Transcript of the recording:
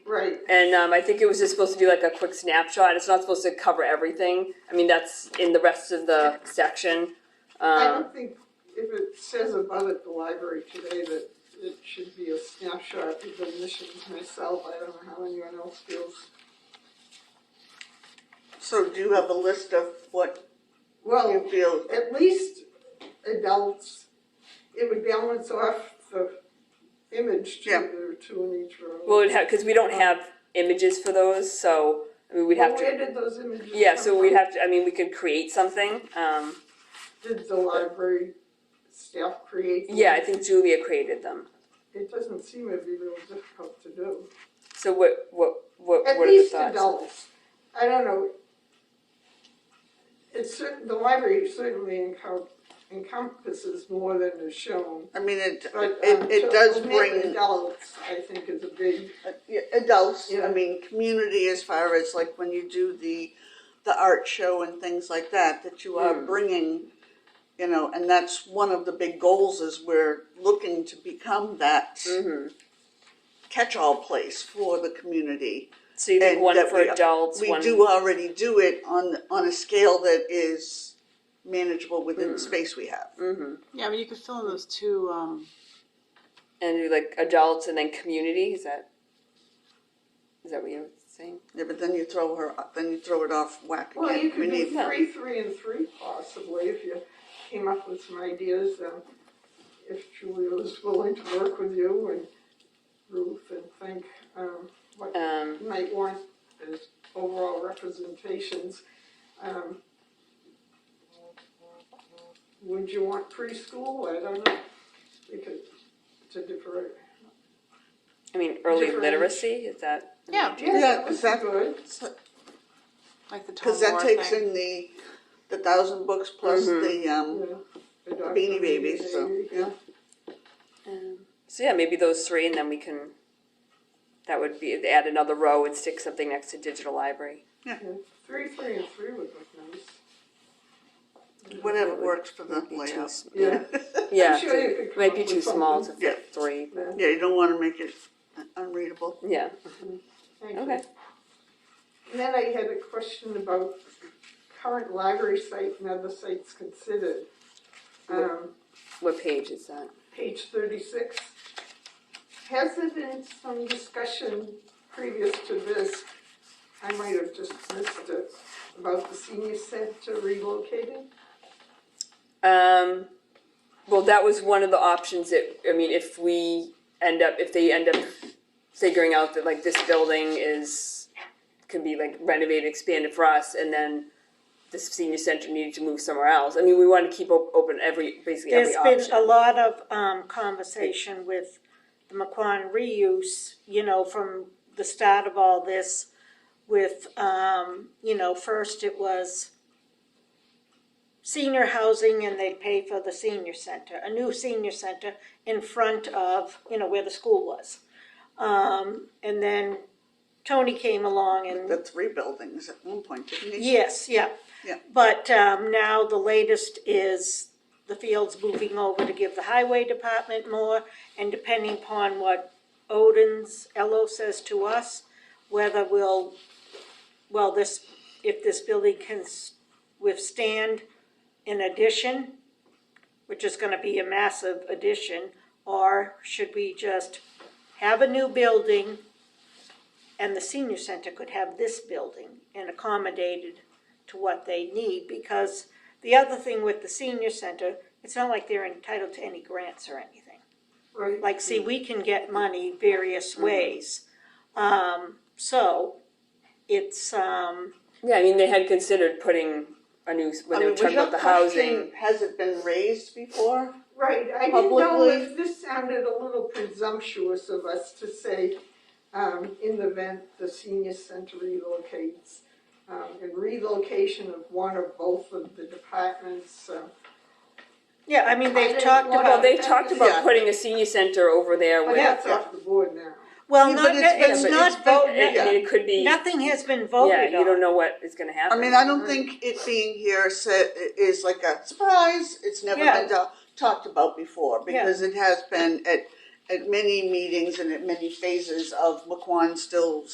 And um, I think it was just supposed to do like a quick snapshot. It's not supposed to cover everything. I mean, that's in the rest of the section. I Um, don't think if it says above at the library today that it should be a snapshot of the missions myself, I don't know how anyone else feels. So do you have a list of what Well, Oh. you feel? at least adults, it would balance off the image to Yeah. the two in each row. well, it'd have because we don't have images for those, so I mean, we'd have Where to. did those images come Yeah, so we'd from? have to. I mean, we could create something. Um, Did the library staff create? them? yeah, I think Julia created them. It doesn't seem to be real difficult to do. So what? What? What? At what are the least thoughts? adults. I don't know. It's cer- the library certainly encom- encompasses more than is shown, I mean, it, but. it, um, it so does mainly bring Adults, I think, is a big, uh, yeah, adults, Yeah. I mean, community as far as like when you do the, the art show and things like that, that you Hmm. are bringing, you know, and that's one of the big goals is we're looking to become that Mm-hmm. catch-all place for the community. So you think and one that for we- uh, adults, We one do already do it on, on a scale that is manageable within the Hmm. space we have. Mm-hmm. Yeah, but you could fill in those two, um, and do like adults and then community. Is that? Is that what you're saying? Yeah, but then you throw her, then you throw it off whack well, you again. We could do need, no. three, three, and three possibly, if you came up with some ideas, um, if Julia was willing to work with you and Ruth and think, um, what Um, you might want as overall representations. Um, Would you want preschool? I don't know. We could, to defer. I mean, early Different. literacy. Is that? yeah, Yeah, Yeah, that's that- good. like the Tom because that Moore takes thing. in the, the thousand books plus Mhm. the, um, Yeah. Adopt Beanie a Babies, so, Baby. yeah. Um, so yeah, maybe those three, and then we can. That would be add another row and stick something next to digital library. Yeah. Three, three, and three would look nice. whatever works for the Be too layout. s- Yeah. Yeah, I'm sure you could it come might up be with too small to something. Yeah. fit three. Yeah, Yeah, you don't wanna make it unreadable. Yeah. thank you. Okay. And then I had a question about current library site and other sites considered. Um, What page is that? page thirty-six. Has there been some discussion previous to this, I might have just missed it, about the senior center relocating? Um, well, that was one of the options that, I mean, if we end up, if they end up figuring out that like this building is, can be like renovated, expanded for us, and then the senior center needed to move somewhere else. I mean, we want to keep op- open every, basically every There's been a option. lot of um conversation with the McQuon reuse, you know, from the start of all this with um, you know, first it was senior housing and they'd pay for the senior center, a new senior center in front of, you know, where the school was. Um, and then Tony came along and The three buildings at one point, didn't he? Yes, yeah. Yeah. But um, now the latest is the field's moving over to give the highway department more, and depending upon what Odin's, Elo says to us, whether we'll, well, this, if this building can s- withstand an addition, which is gonna be a massive addition, or should we just have a new building? And the senior center could have this building and accommodate it to what they need, because the other thing with the senior center, it's not like they're entitled to any grants or anything. Right, Like, see, we can get money various Mm-hmm. ways. Um, so, it's, um, Yeah, I mean, they had considered putting a new, when they I mean, were was talking your about the question, housing. has it been raised before? right, I didn't know Publicly. if this sounded a little presumptuous of us to say, um, in the event the senior center relocates, um, and relocation of one or both of the departments, um, yeah, I mean, I they've didn't talked want Well, about, Oh, they talked about Yeah. putting a senior center over there but with. that's off the board now. well, Yeah, not, but it's been- it's but not I yeah. voted, mean, it could be, yeah, nothing has been voted you don't on. know what is gonna I happen. mean, I don't think it being here sa- is like a surprise, it's never Yeah. been ta- talked about before, because it has been at, at many meetings and at many phases of McQuan still